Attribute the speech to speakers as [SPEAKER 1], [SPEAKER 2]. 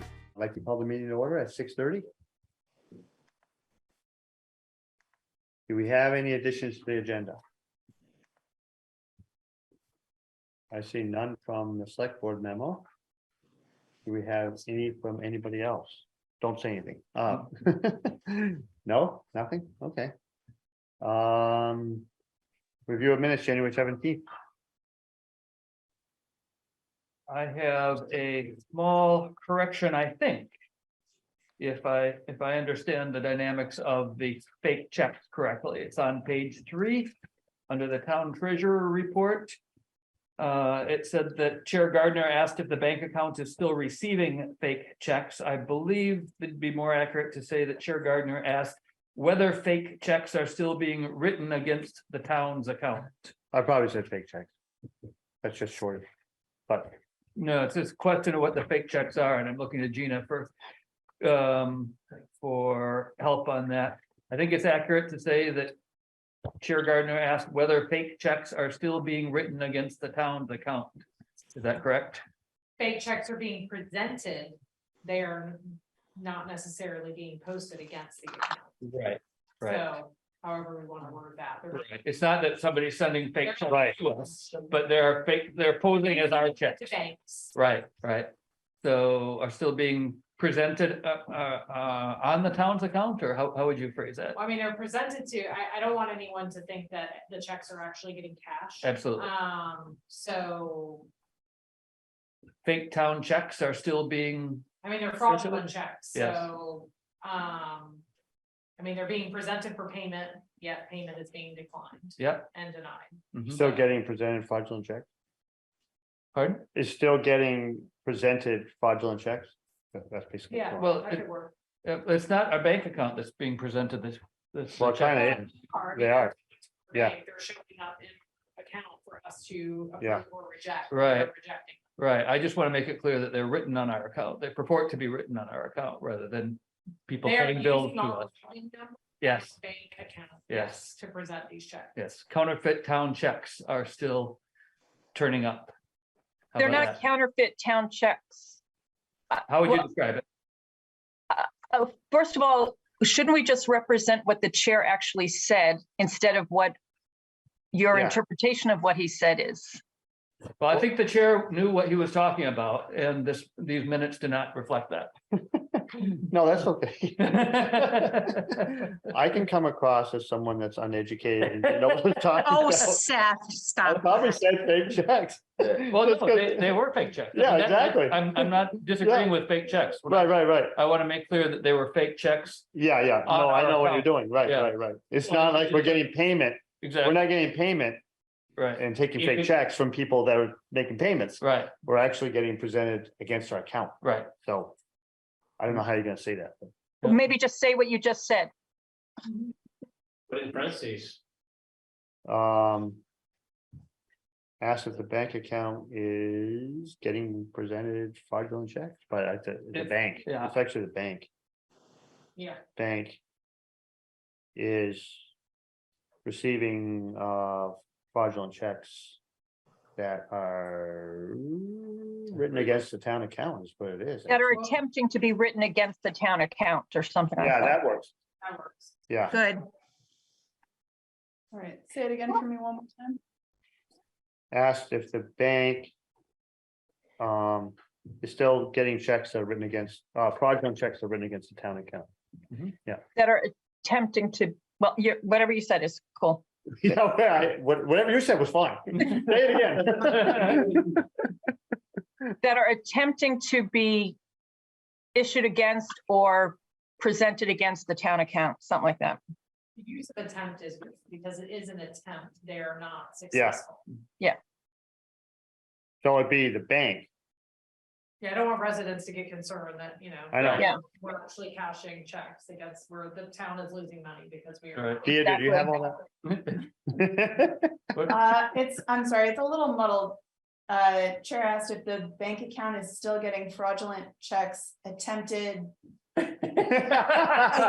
[SPEAKER 1] I'd Like to call the meeting to order at six thirty. Do we have any additions to the agenda? I see none from the select board memo. Do we have any from anybody else? Don't say anything. Uh, No, nothing? Okay. Um, review of minutes, January seventeenth.
[SPEAKER 2] I have a small correction, I think. If I, if I understand the dynamics of the fake checks correctly, it's on page three, under the town treasurer report. Uh, it said that Chair Gardner asked if the bank account is still receiving fake checks. I believe it'd be more accurate to say that Chair Gardner asked whether fake checks are still being written against the town's account.
[SPEAKER 1] I probably said fake checks. That's just short of, but
[SPEAKER 2] No, it's this question of what the fake checks are, and I'm looking to Gina for, um, for help on that. I think it's accurate to say that Chair Gardner asked whether fake checks are still being written against the town's account. Is that correct?
[SPEAKER 3] fake checks are being presented, they're not necessarily being posted against the account.
[SPEAKER 2] Right. Right.
[SPEAKER 3] So however we want to word that. they're-
[SPEAKER 2] Right. It's not that somebody's sending fake checks
[SPEAKER 1] Right.
[SPEAKER 2] to us, but they're fake, they're posing as our checks.
[SPEAKER 3] To banks,
[SPEAKER 2] Right, right. So are still being presented, uh, uh, uh, on the town's account, or how, how would you phrase that?
[SPEAKER 3] I mean, they're presented to, I, I don't want anyone to think that the checks are actually getting cashed.
[SPEAKER 2] Absolutely.
[SPEAKER 3] Um, so,
[SPEAKER 2] fake town checks are still being,
[SPEAKER 3] I mean, they're
[SPEAKER 2] Essentially,
[SPEAKER 3] fraudulent checks,
[SPEAKER 2] yes.
[SPEAKER 3] so, um, I mean, they're being presented for payment, yet payment is being declined
[SPEAKER 2] yep.
[SPEAKER 3] and denied.
[SPEAKER 2] mhm.
[SPEAKER 1] still getting presented fraudulent checks.
[SPEAKER 2] Pardon?
[SPEAKER 1] is still getting presented fraudulent checks. That- That's basically.
[SPEAKER 3] Yeah,
[SPEAKER 2] Well,
[SPEAKER 3] that
[SPEAKER 2] it-
[SPEAKER 3] could work.
[SPEAKER 2] Uh, It's not our bank account that's being presented this, this.
[SPEAKER 1] Well, China is,
[SPEAKER 3] Card.
[SPEAKER 1] they are, Yeah.
[SPEAKER 3] Right, They're showing up in account for us to
[SPEAKER 1] Yeah.
[SPEAKER 3] approve or reject.
[SPEAKER 2] Right.
[SPEAKER 3] They're Rejecting.
[SPEAKER 2] Right, I just want to make it clear that they're written on our account. They purport to be written on our account rather than people
[SPEAKER 3] They're
[SPEAKER 2] paying bills
[SPEAKER 3] using
[SPEAKER 2] to
[SPEAKER 3] all
[SPEAKER 2] us.
[SPEAKER 3] the billing numbers
[SPEAKER 2] Yes,
[SPEAKER 3] of Bank account.
[SPEAKER 2] Yes.
[SPEAKER 3] To present these checks.
[SPEAKER 2] yes, counterfeit town checks are still turning up. How
[SPEAKER 4] They're
[SPEAKER 2] about
[SPEAKER 4] not
[SPEAKER 2] that?
[SPEAKER 4] counterfeit town checks.
[SPEAKER 2] How would you
[SPEAKER 4] well-
[SPEAKER 2] describe it?
[SPEAKER 4] Oh, first of all, shouldn't we just represent what the chair actually said instead of what your
[SPEAKER 1] Yeah.
[SPEAKER 4] interpretation of what he said is?
[SPEAKER 2] Well, I think the chair knew what he was talking about and this, these minutes do not reflect that.
[SPEAKER 1] no, that's okay. I can come across as someone that's uneducated and didn't know what I'm talking
[SPEAKER 5] Oh,
[SPEAKER 1] about.
[SPEAKER 5] Seth,
[SPEAKER 1] I
[SPEAKER 5] stop.
[SPEAKER 1] probably said fake checks.
[SPEAKER 2] Well,
[SPEAKER 1] Just
[SPEAKER 2] no,
[SPEAKER 1] 'cause-
[SPEAKER 2] they, they were fake checks. I
[SPEAKER 1] Yeah,
[SPEAKER 2] mean, that-
[SPEAKER 1] exactly.
[SPEAKER 2] I'm, I'm not disagreeing with fake checks. What I-
[SPEAKER 1] Right, right, right.
[SPEAKER 2] I want to make clear that they were fake checks.
[SPEAKER 1] Yeah, yeah.
[SPEAKER 2] On
[SPEAKER 1] No, I
[SPEAKER 2] our
[SPEAKER 1] know what you're
[SPEAKER 2] account.
[SPEAKER 1] doing. Right,
[SPEAKER 2] Yeah.
[SPEAKER 1] right, right. It's
[SPEAKER 2] Well,
[SPEAKER 1] not
[SPEAKER 2] it's
[SPEAKER 1] like we're
[SPEAKER 2] just-
[SPEAKER 1] getting payment. We're
[SPEAKER 2] Exactly,
[SPEAKER 1] not getting payment
[SPEAKER 2] right,
[SPEAKER 1] and taking
[SPEAKER 2] If
[SPEAKER 1] fake
[SPEAKER 2] it-
[SPEAKER 1] checks from people that are making payments.
[SPEAKER 2] right,
[SPEAKER 1] We're actually getting presented against our account.
[SPEAKER 2] right.
[SPEAKER 1] So I don't know how you're gonna say that. but-
[SPEAKER 2] Yeah.
[SPEAKER 4] Maybe just say what you just said.
[SPEAKER 6] But in parentheses,
[SPEAKER 1] Um. Asked if the bank account is getting presented fraudulent checks, but I, the, the
[SPEAKER 2] It's-
[SPEAKER 1] bank,
[SPEAKER 2] yeah.
[SPEAKER 1] it's actually the bank,
[SPEAKER 3] Yeah.
[SPEAKER 1] bank. Is receiving, uh, fraudulent checks. That are written against the town account is what it is.
[SPEAKER 4] That are
[SPEAKER 3] Well-
[SPEAKER 4] attempting to be written against the town account or something like
[SPEAKER 1] Yeah,
[SPEAKER 4] that.
[SPEAKER 1] that works.
[SPEAKER 3] That works.
[SPEAKER 1] Yeah,
[SPEAKER 5] Good.
[SPEAKER 7] All right, say it again for me one more time.
[SPEAKER 1] asked if the bank. Um, is still getting checks that are written against, uh, fraudulent checks that are written against the town account.
[SPEAKER 4] That are attempting to, well, you whatever you said is cool.
[SPEAKER 1] Yeah, well, I- what- whatever you said was fine. Say it again.
[SPEAKER 4] That are attempting to be issued against or presented against the town account, something like that.
[SPEAKER 3] The Use of attempt is because it is an attempt. They're not successful.
[SPEAKER 1] So it'd be the bank.
[SPEAKER 3] Yeah, I don't want residents to get concerned that, you know.
[SPEAKER 1] I know.
[SPEAKER 4] Yeah.
[SPEAKER 3] We're actually cashing checks against where the town is losing money because we
[SPEAKER 2] Right.
[SPEAKER 3] are.
[SPEAKER 1] Thea, did you have all that?
[SPEAKER 7] Uh, it's, I'm sorry, it's a little muddled. Uh, Chair asked if the bank account is still getting fraudulent checks attempted